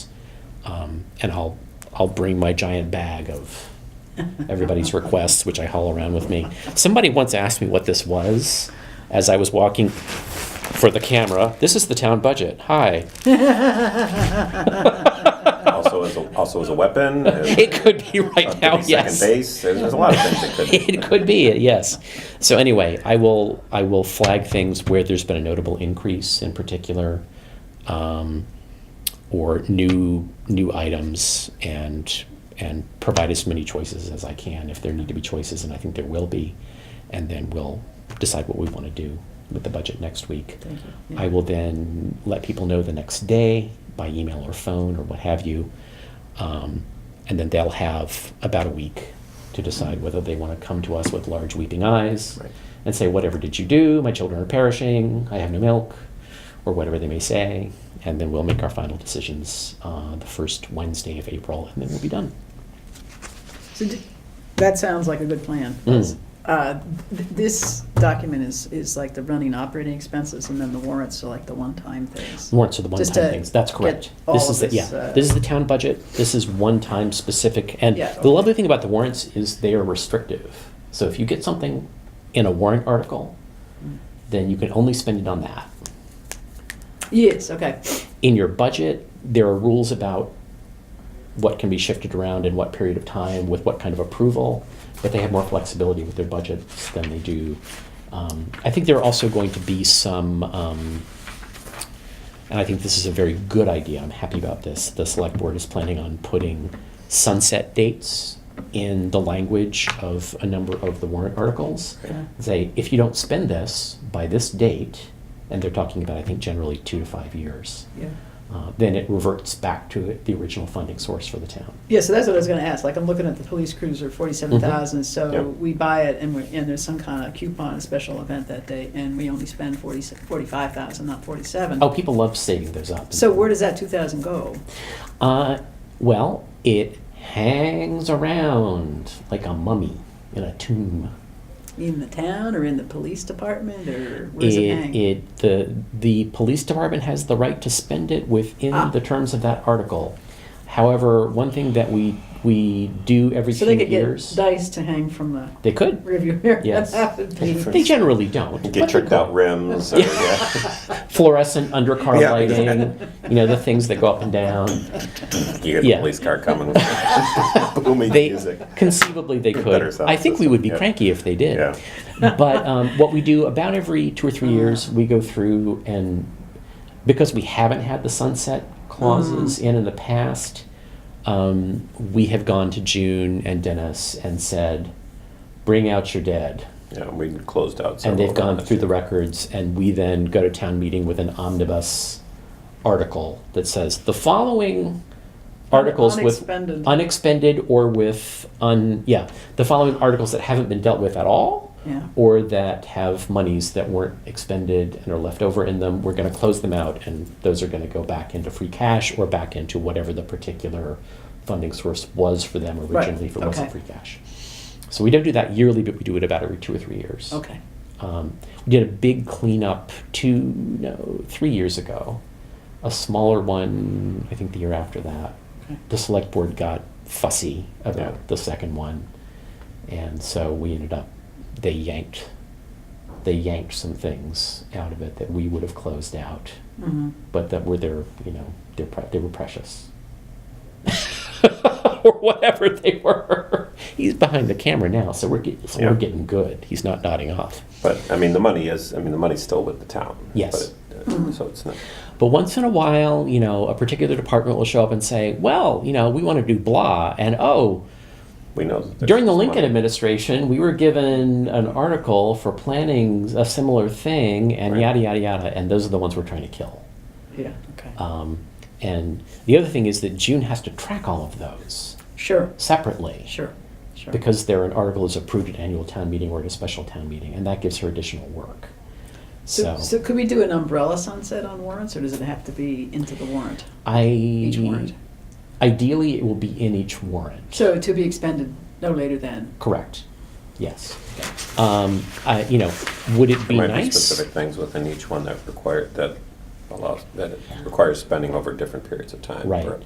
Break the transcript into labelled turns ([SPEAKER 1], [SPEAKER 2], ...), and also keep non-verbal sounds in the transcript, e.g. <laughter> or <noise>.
[SPEAKER 1] Um, and I'll, I'll bring my giant bag of everybody's requests, which I haul around with me. Somebody once asked me what this was as I was walking for the camera. This is the town budget. Hi.
[SPEAKER 2] Also as, a- also as
[SPEAKER 1] <laughs>
[SPEAKER 2] a weapon? as-
[SPEAKER 1] It could be right
[SPEAKER 2] could be
[SPEAKER 1] now, yes.
[SPEAKER 2] Second base, there's, there's Oh, a lot of things that could be.
[SPEAKER 1] <laughs> It could be, yes. So anyway, I will, I will flag things where there's been a notable increase in particular, um, or new, new items and, and provide as many choices as I can if there need to be choices, and I think there will be. And then we'll decide what we want to do with the budget next week.
[SPEAKER 3] Thank you.
[SPEAKER 1] I will then let people know the next day by email or phone or what have you. Um, and then they'll have about a week to decide whether they want to come to us with large weeping eyes
[SPEAKER 2] Right.
[SPEAKER 1] and say, Whatever did you do? My children are perishing. I have no milk, or whatever they may say. And then we'll make our final decisions uh, the first Wednesday of April, and then we'll be done.
[SPEAKER 3] So d- that sounds like a good plan.
[SPEAKER 1] Mm.
[SPEAKER 3] Uh, th- This document is, is like the running operating expenses, and then the warrants are like the one-time things.
[SPEAKER 1] Warrants are the one
[SPEAKER 3] Just
[SPEAKER 1] time
[SPEAKER 3] to
[SPEAKER 1] things. That's
[SPEAKER 3] get
[SPEAKER 1] correct.
[SPEAKER 3] all
[SPEAKER 1] This
[SPEAKER 3] of
[SPEAKER 1] is the, yeah.
[SPEAKER 3] this, uh,
[SPEAKER 1] this is the town budget. This is one time specific. And
[SPEAKER 3] Yeah,
[SPEAKER 1] the
[SPEAKER 3] okay.
[SPEAKER 1] lovely thing about the warrants is they are restrictive. So if you get something in a warrant article,
[SPEAKER 3] Mm.
[SPEAKER 1] then you can only spend it on that.
[SPEAKER 3] Yes, okay.
[SPEAKER 1] In your budget, there are rules about what can be shifted around in what period of time with what kind of approval, but they have more flexibility with their budgets than they do. Um, I think there are also going to be some, um, and I think this is a very good idea. I'm happy about this. The select board is planning on putting sunset dates in the language of a number of the warrant articles.
[SPEAKER 3] Okay.
[SPEAKER 1] Say, if you don't spend this by this date, and they're talking about, I think, generally two to five years
[SPEAKER 3] Yeah.
[SPEAKER 1] uh, then it reverts back to the original funding source for the town.
[SPEAKER 3] Yeah, so that's what I was gonna ask, like, I'm looking at the police cruiser, forty-seven thousand, so
[SPEAKER 2] Yep.
[SPEAKER 3] we buy it, and we're, and there's some kind of coupon, a special event that day, and we only spend forty, forty-five thousand, not forty-seven.
[SPEAKER 1] Oh, people love saving those up.
[SPEAKER 3] So where does that two thousand go?
[SPEAKER 1] Uh, well, it hangs around like a mummy in a tomb.
[SPEAKER 3] In the town, or in the police department, or where does it hang?
[SPEAKER 1] it- the the police department has the right to spend it within
[SPEAKER 3] Ah.
[SPEAKER 1] the terms of that article. However, one thing that we we do every
[SPEAKER 3] So
[SPEAKER 1] few
[SPEAKER 3] they could get
[SPEAKER 1] years
[SPEAKER 3] dice to hang from the
[SPEAKER 1] they could.
[SPEAKER 3] <laughs> rearview mirror.
[SPEAKER 1] Yes.
[SPEAKER 3] That would be-
[SPEAKER 1] They generally don't. but
[SPEAKER 2] Get
[SPEAKER 1] they
[SPEAKER 2] tricked
[SPEAKER 1] could.
[SPEAKER 2] out rims or, yeah,
[SPEAKER 1] <laughs> Fluorescent undercar
[SPEAKER 2] Yeah.
[SPEAKER 1] lighting,
[SPEAKER 2] <laughs>
[SPEAKER 1] you know, the things that go up and down.
[SPEAKER 2] you get the
[SPEAKER 1] Yeah.
[SPEAKER 2] police car
[SPEAKER 1] <laughs>
[SPEAKER 2] coming <laughs> with booming
[SPEAKER 1] they
[SPEAKER 2] music.
[SPEAKER 1] conceivably they
[SPEAKER 2] Better
[SPEAKER 1] could.
[SPEAKER 2] sound
[SPEAKER 1] I think we
[SPEAKER 2] system,
[SPEAKER 1] would be
[SPEAKER 2] yeah.
[SPEAKER 1] cranky if they did.
[SPEAKER 2] Yeah.
[SPEAKER 1] <laughs> But um, what we do about every two or three years, we go through and because we haven't had the sunset clauses in in the past, um, we have gone to June and Dennis and said, "Bring out your dead."
[SPEAKER 2] Yeah, we closed out
[SPEAKER 1] and
[SPEAKER 2] several.
[SPEAKER 1] they've gone through the records, and we then go to town meeting with an omnibus article that says the following articles
[SPEAKER 3] Unexpended.
[SPEAKER 1] with unexpended or with un yeah the following articles that haven't been dealt with at all
[SPEAKER 3] Yeah.
[SPEAKER 1] or that have monies that weren't expended and are left over in them we're going to close them out and those are going to go back into free cash or back into whatever the particular funding source was for them
[SPEAKER 3] Right,
[SPEAKER 1] originally if it wasn't
[SPEAKER 3] okay.
[SPEAKER 1] free cash so we don't do that yearly but we do it about every two or three years
[SPEAKER 3] Okay.
[SPEAKER 1] um, we did a big cleanup two, no, three years ago. A smaller one, I think, the year after that.
[SPEAKER 3] Okay.
[SPEAKER 1] The select board got fussy about
[SPEAKER 2] Yeah.
[SPEAKER 1] the second one, and so we ended up they yanked they yanked some things out of it that we would have closed out,
[SPEAKER 3] Mhm.
[SPEAKER 1] but that were their you know their pre- they were precious. <laughs> or whatever they were. He's behind the camera now, so we're get, so
[SPEAKER 2] Yeah.
[SPEAKER 1] we're getting good. He's not nodding off.
[SPEAKER 2] But, I mean, the money is, I mean, the money's still with the town.
[SPEAKER 1] Yes.
[SPEAKER 2] but it- uh, So it's not,
[SPEAKER 1] But once in a while, you know, a particular department will show up and say, well, you know, we want to do blah. And oh,
[SPEAKER 2] we know. that there's
[SPEAKER 1] during the
[SPEAKER 2] some
[SPEAKER 1] Lincoln
[SPEAKER 2] money.
[SPEAKER 1] administration, we were given an article for planning a similar thing and
[SPEAKER 2] Right.
[SPEAKER 1] yada, yada, yada. And those are the ones we're trying to kill.
[SPEAKER 3] Yeah, okay.
[SPEAKER 1] Um, and the other thing is that June has to track all of those
[SPEAKER 3] Sure,
[SPEAKER 1] separately
[SPEAKER 3] sure, sure.
[SPEAKER 1] because they're an article is approved at annual town meeting or at a special town meeting. And that gives her additional work.
[SPEAKER 3] So, so could we do an umbrella sunset on warrants, or does it have to be into the warrant?
[SPEAKER 1] I
[SPEAKER 3] Each warrant.
[SPEAKER 1] ideally it will be in each warrant.
[SPEAKER 3] So to be expended no later than,
[SPEAKER 1] Correct. Yes. Um, I, you know, would it be
[SPEAKER 2] There might be
[SPEAKER 1] nice?
[SPEAKER 2] specific things within each one that require, that allows, that it requires spending over different periods of time.
[SPEAKER 1] Right.
[SPEAKER 2] for